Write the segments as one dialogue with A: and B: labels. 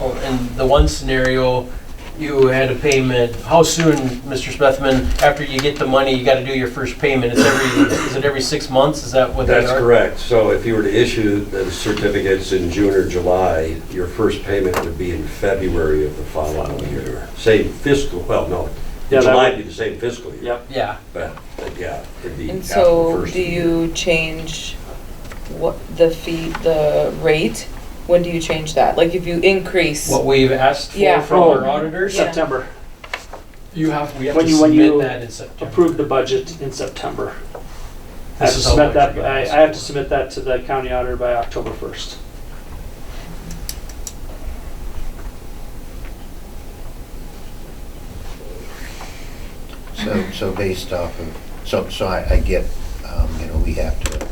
A: Oh, In the one scenario, you had a payment, how soon, Mr. Smithman, after you get the money, you gotta do your first payment? It's every, is it every six months? Is that what they are?
B: That's correct. So if you were to issue the certificates in June or July, your first payment would be in February of the following year. Same fiscal, well, no,
C: Yeah, that
B: July would
C: would-
B: be the same fiscal year.
C: Yep.
A: Yeah.
B: But, but yeah, it'd be
D: And
B: after the
D: so,
B: first
D: do
B: of the year.
D: you change what, the fee, the rate? When do you change that? Like, if you increase,
A: What we've asked for
D: Yeah.
A: from our
C: Oh.
A: auditors,
D: Yeah.
C: September.
A: you have, we have
C: When
A: to
C: you- when
A: submit
C: you
A: that in September.
C: Approved the budget in September. I
A: This
C: have to
A: is how
C: submit
A: much
C: that,
A: we
C: I, I
A: got.
C: have to submit that to the county auditor by October first.
E: So, so based off of, so, so I, I get, um, you know, we have to,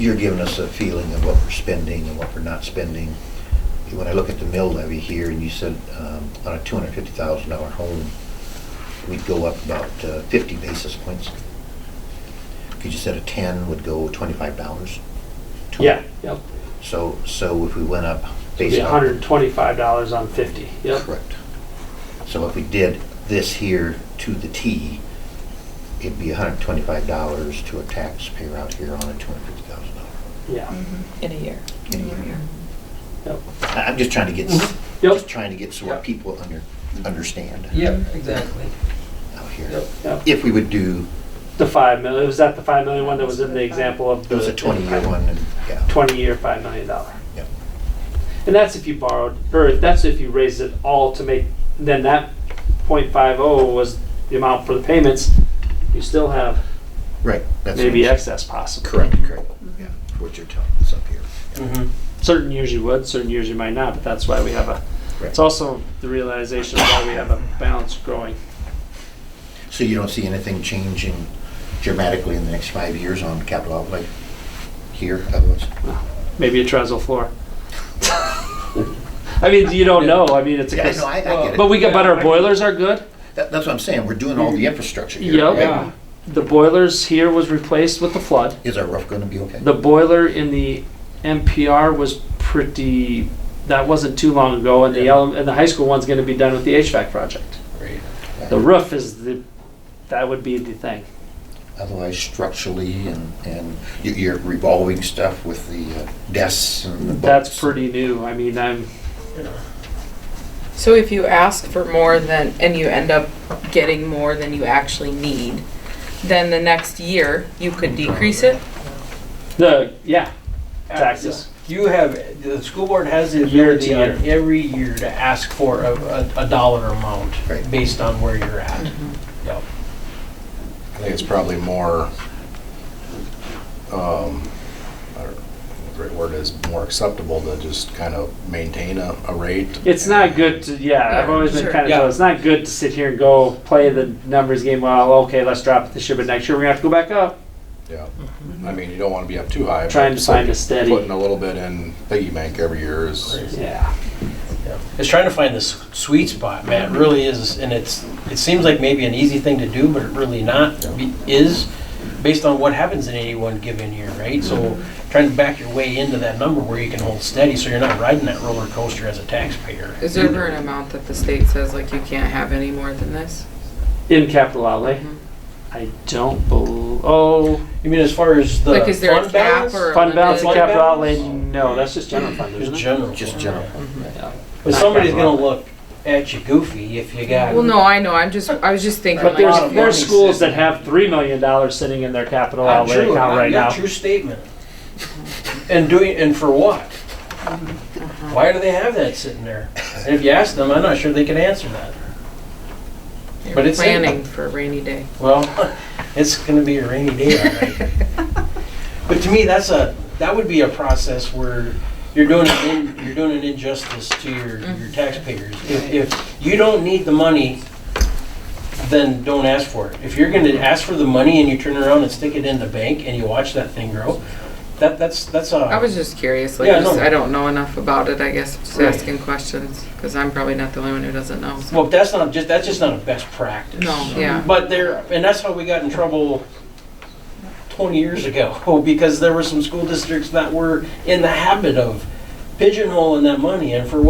E: you're giving us a feeling of what we're spending and what we're not spending. When I look at the mill levy here, and you said, um, on a two hundred fifty thousand dollar home, we'd go up about uh, fifty basis points. Could you said a ten would go twenty-five dollars?
C: Yeah, yep.
E: So, so if we went up
C: It'd
E: based
C: be
E: on.
C: hundred and twenty-five dollars on fifty, yep.
E: Correct. So if we did this here to the T, it'd be hundred and twenty-five dollars to a taxpayer out here on a two hundred and fifty thousand
C: Yeah,
D: in a year?
E: dollar.
C: yep,
E: I- I'm just trying to get, s-
C: yep,
E: just trying to get so
A: Yep.
E: what people under, understand
A: Yeah, exactly.
E: out
A: Yep.
E: here.
C: yep.
E: If we would do,
C: The five million, was that the five million one that was in the example of?
E: it was
C: the-
E: a twenty-year one, and, yeah,
C: Twenty-year, five million dollar.
E: Yep.
C: And that's if you borrowed, or that's if you raised it all to make, then that point five oh was the amount for the payments. You still have
E: right. that's what
C: maybe
E: I'm-
C: excess possible.
E: Correct, correct, yeah, what you're telling us up here.
A: Mhm.
C: certain years you would, certain years you might not, but that's why we have a,
E: Right.
C: it's also the realization of why we have a balance growing.
E: So you don't see anything changing dramatically in the next five years on capital outlay here, otherwise?
C: Maybe a trestle floor. I mean, you don't know, I mean, it's a.
E: Yeah, no, I, I get it.
C: But we got, but our boilers are good.
E: That, that's what I'm saying, we're doing all the infrastructure here.
C: Yep.
E: right?
A: Yeah.
C: The boilers here was replaced with the flood.
E: Is our roof gonna be okay?
C: The boiler in the NPR was pretty, that wasn't too long ago, and the,
A: Yeah.
C: ele- and the high school one's gonna be done with the HVAC project.
A: Great.
C: The roof is the, that would be the thing.
E: Otherwise structurally and, and y- your revolving stuff with the uh, desks and the
C: That's
E: books.
C: pretty new, I mean, I'm,
D: So if you ask for more than, and you end up getting more than you actually need, then the next year, you could decrease it?
C: The, yeah, taxes.
A: You have, the school board has the
C: Year to
A: ability on every year to ask for a, a- a dollar amount
E: Right.
A: based on where you're at. Yep.
F: I think it's probably more, um, I don't know what the right word is, more acceptable to just kind of maintain a, a rate.
C: It's not good to, yeah, I've
D: Yeah,
C: always been
D: sure.
C: kind of
A: Yeah.
C: told, it's not good to sit here and go play the numbers game, well, okay, let's drop it this year, but next year we're gonna have to go back up.
F: Yeah, I mean, you don't want to be up too high. but
C: Trying to
F: just
C: find
F: like
C: a steady-
F: Putting a little bit in piggy bank every year is,
C: Yeah.
A: It's trying to find the s- sweet spot, man, it really is, and it's, it seems like maybe an easy thing to do, but it really not, be- is, based on what happens in any one given year, right? So
E: Mm-hmm.
A: trying to back your way into that number where you can hold steady, so you're not riding that roller coaster as a taxpayer.
D: Is there ever an amount that the state says, like, you can't have any more than this?
C: In capital outlay,
D: Mhm.
C: I don't bel, oh,
A: You mean as far as the
D: Like, is there a
A: fund
D: cap
A: balance?
D: or? a
C: fund balance and
D: limit?
C: capital
A: balance?
C: outlay, no, that's just general fund,
A: Just
C: isn't it?
A: general.
E: Just general.
C: Yeah.
A: But somebody's gonna look at you goofy if you got.
D: Well, no, I know, I'm just, I was just thinking,
C: But
D: like,
A: lot
C: there's,
A: of
C: there's
A: money
C: schools that
A: sitting.
C: have three million dollars sitting in their capital
A: Not
C: outlay
A: true,
C: account
A: not
C: right
A: your
C: now.
A: true statement. And doing, and for what? Why do they have that sitting there? And if you ask them, I'm not sure they can answer that. but
D: you're
A: it's in-
D: planning for a rainy day.
A: Well, it's gonna be a rainy day, all right. But to me, that's a, that would be a process where you're doing, an in- you're doing an injustice to your,
D: Mm-hmm.
A: your taxpayers. If, if you don't need the money, then don't ask for it. If you're gonna ask for the money and you turn around and stick it in the bank and you watch that thing grow, that, that's, that's a.
D: I was just curious, like,
A: Yeah,
D: just-
A: no.
D: I don't know enough about it, I guess, just
A: Right.
D: asking questions, because I'm probably not the only one who doesn't know. so.
A: Well, that's not just, that's just not a best practice.
D: No, yeah.
A: But there, and that's how we got in trouble 20 years ago, because there were some school districts that were in the habit of pigeonholing that money, and for what